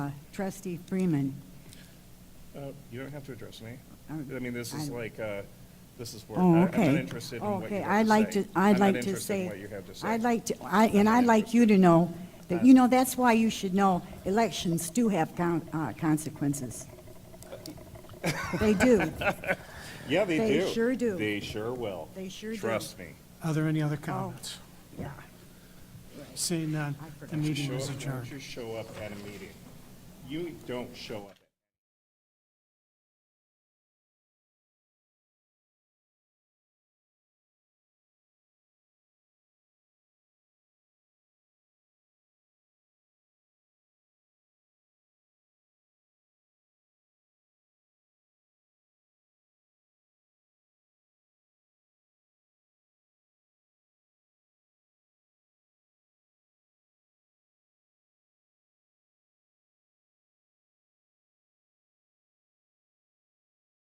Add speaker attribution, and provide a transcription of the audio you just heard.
Speaker 1: Trustee Freeman.
Speaker 2: Uh, You don't have to address me.
Speaker 1: I
Speaker 2: I mean, this is
Speaker 1: I-
Speaker 2: like, uh, this is where,
Speaker 1: Oh,
Speaker 2: I-
Speaker 1: okay.
Speaker 2: I'm not interested in what you
Speaker 1: Okay,
Speaker 2: have to say.
Speaker 1: I'd like to, I'd like
Speaker 2: I'm not
Speaker 1: to
Speaker 2: interested in
Speaker 1: say.
Speaker 2: what you have to say.
Speaker 1: I'd like to, I,
Speaker 2: I'm
Speaker 1: and
Speaker 2: not
Speaker 1: I'd like you to know that, you know, that's why you should know, elections do have con- uh, consequences. They do.
Speaker 2: Yeah, they do.
Speaker 1: they sure do.
Speaker 2: They sure will.
Speaker 1: They sure do.
Speaker 2: Trust me.
Speaker 3: Are there any other comments?
Speaker 1: Yeah.
Speaker 3: Seeing none,
Speaker 1: I forgot.
Speaker 3: the meeting
Speaker 2: Show
Speaker 3: is
Speaker 2: up- Why
Speaker 3: adjourned.
Speaker 2: don't you show up at a meeting? You don't show up.